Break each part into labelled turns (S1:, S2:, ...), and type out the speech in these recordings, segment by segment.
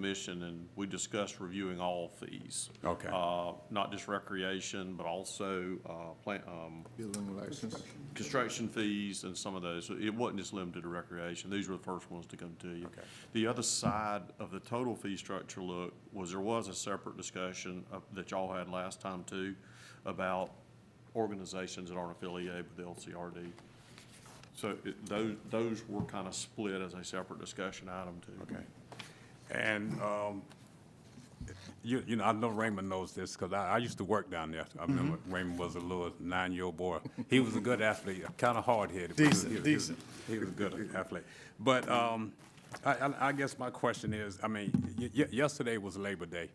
S1: commission, and we discussed reviewing all fees.
S2: Okay.
S1: Uh, Not just recreation, but also uh, plant, um,
S3: Building license.
S1: construction fees and some of those. So It wasn't just limited to recreation. These were the first ones to come to you.
S2: Okay.
S1: The other side of the total fee structure look was there was a separate discussion of- that y'all had last time too about organizations that aren't affiliated with the LCRD. So it- those, those were kind of split as a separate discussion item too.
S2: Okay. And, um, you, you know, I know Raymond knows this, because I, I used to work down there. I remember
S4: Mm-hmm.
S2: Raymond was a little nine-year-old boy. He was a good athlete, kind of hard-headed. but he was- he
S4: Decent,
S2: was- he was-
S4: decent.
S2: He was a good athlete. But, um, I, I, I guess my question is, I mean, y- y- yesterday was Labor Day,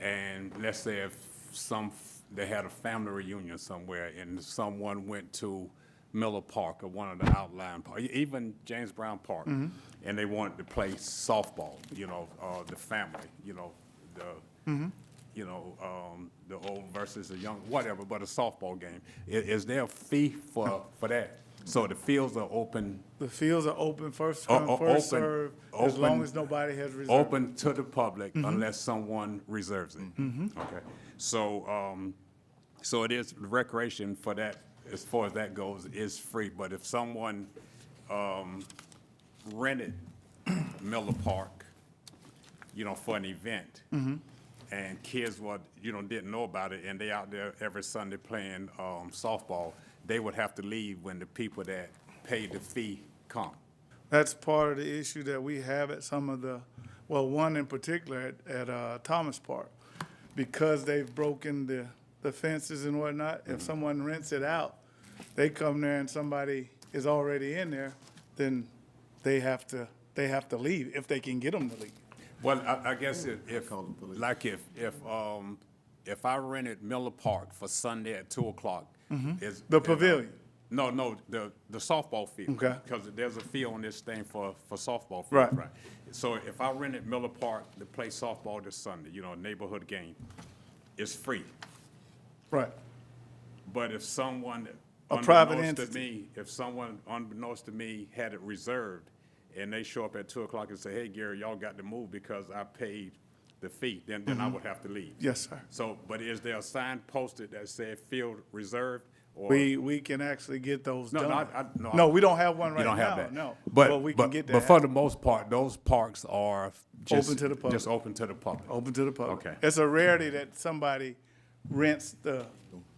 S2: and let's say if some, f- they had a family reunion somewhere, and someone went to Miller Park or one of the outlying park, even James Brown Park, and they wanted to play softball, you know, uh, the family, you know, the, you know, um, the old versus the young, whatever, but a softball game. I- is there a fee for, for that? So the fields are open
S4: The fields are open, first
S2: O-
S4: come,
S2: o-
S4: first
S2: open-
S4: served, as long
S2: open-
S4: as nobody has reserved.
S2: open to the public unless someone reserves it. Okay, so, um, so it is recreation for that, as far as that goes, is free, but if someone, um, rented Miller Park, you know, for an event, and kids were, you know, didn't know about it, and they out there every Sunday playing, um, softball, they would have to leave when the people that paid the fee come.
S4: That's part of the issue that we have at some of the, well, one in particular at, at uh, Thomas Park. Because they've broken the, the fences and whatnot,
S2: Mm-hmm.
S4: if someone rents it out, they come there and somebody is already in there, then they have to, they have to leave if they can get them to leave.
S2: Well, I, I guess if, if,
S3: Call the police.
S2: like if, if, um, if I rented Miller Park for Sunday at two o'clock, is.
S4: Mm-hmm. The
S2: is-
S4: pavilion.
S2: No, no, the, the softball field.
S4: Okay.
S2: Because there's a fee on this thing for, for softball. field,
S4: Right.
S2: So if I rented Miller Park to play softball this Sunday, you know, neighborhood game, it's free.
S4: Right.
S2: But if someone
S4: A private
S2: unbeknownst to
S4: entity.
S2: me, if someone unbeknownst to me had it reserved and they show up at two o'clock and say, hey, Gary, y'all got to move because I paid the fee, then, then I would have to leave.
S4: Mm-hmm. Yes, sir.
S2: So, but is there a sign posted that said field reserved or?
S4: We, we can actually get those
S2: No, no,
S4: done.
S2: I- I- no, I-
S4: No, we don't have one
S2: You
S4: right
S2: don't have
S4: now,
S2: that?
S4: no. we
S2: But,
S4: can
S2: but,
S4: get
S2: but
S4: that.
S2: for the most part, those parks are just.
S4: Open to the public.
S2: Just open to the public.
S4: Open to the public.
S2: Okay.
S4: It's a rarity that somebody rents the,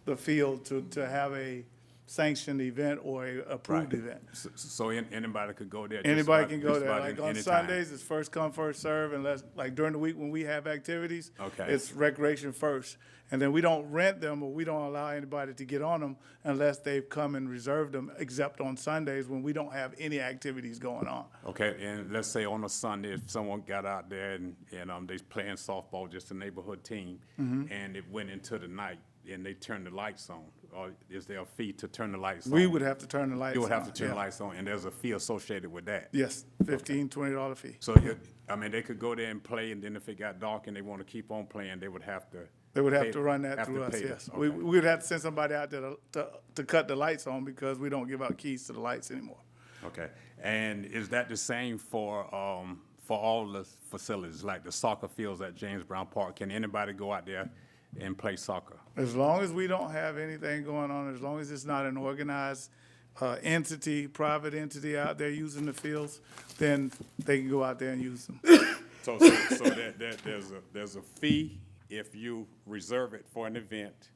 S4: the field to, to have a sanctioned event or a approved
S2: Right.
S4: event.
S2: So- So an- anybody could go there. just
S4: Anybody
S2: about-
S4: can go
S2: just
S4: there,
S2: about
S4: like
S2: any-
S4: on
S2: anytime.
S4: Sundays, it's first come, first serve. unless, like during the week when we have activities.
S2: Okay.
S4: It's recreation first, and then we don't rent them or we don't allow anybody to get on them unless they've come and reserved them, except on Sundays when we don't have any activities going on.
S2: Okay, and let's say on a Sunday, if someone got out there and, and, um, they playing softball, just a neighborhood team,
S4: Mm-hmm.
S2: and it went into the night, and they turned the lights on, or is there a fee to turn the lights on?
S4: We would have to turn the lights on.
S2: You would have to turn the
S4: yeah.
S2: lights on, and there's a fee associated with that.
S4: Yes, fifteen, twenty dollar fee.
S2: So, it- I mean, they could go there and play, and then if it got dark and they wanna keep on playing, they would have to.
S4: They would have
S2: pay-
S4: to run that
S2: have to
S4: through us,
S2: pay the-
S4: yes. We,
S2: okay.
S4: we would have to send somebody out there to- to, to cut the lights on because we don't give out keys to the lights anymore.
S2: Okay, and is that the same for, um, for all the facilities, like the soccer fields at James Brown Park? Can anybody go out there and play soccer?
S4: As long as we don't have anything going on, as long as it's not an organized, uh, entity, private entity out there using the fields, then they can go out there and use them.
S2: So, so, so that, that, there's a, there's a fee if you reserve it for an event,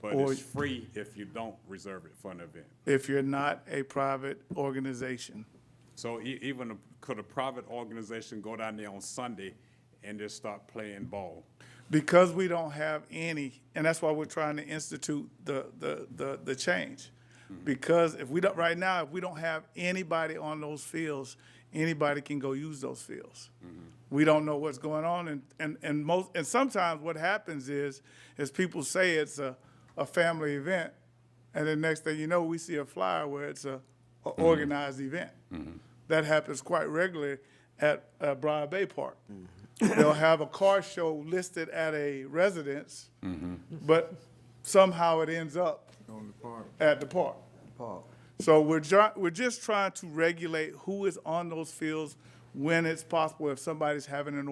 S2: but
S4: Or-
S2: it's free if you don't reserve it for an event.
S4: If you're not a private organization,
S2: So e- even, a- could a private organization go down there on Sunday and just start playing ball?
S4: because we don't have any, and that's why we're trying to institute the, the, the, the change. Because if we don't, right now, if we don't have anybody on those fields, anybody can go use those fields. We don't know what's going on and, and, and most, and sometimes what happens is, is people say it's a, a family event. And then next thing you know, we see a flyer where it's a, a organized event. That happens quite regularly at uh, Briar Bay Park. They'll have a car show listed at a residence, but somehow it ends up
S3: On the park,
S4: at the park.
S3: park.
S4: So we're, ju- we're just trying to regulate who is on those fields, when it's possible, if somebody's having an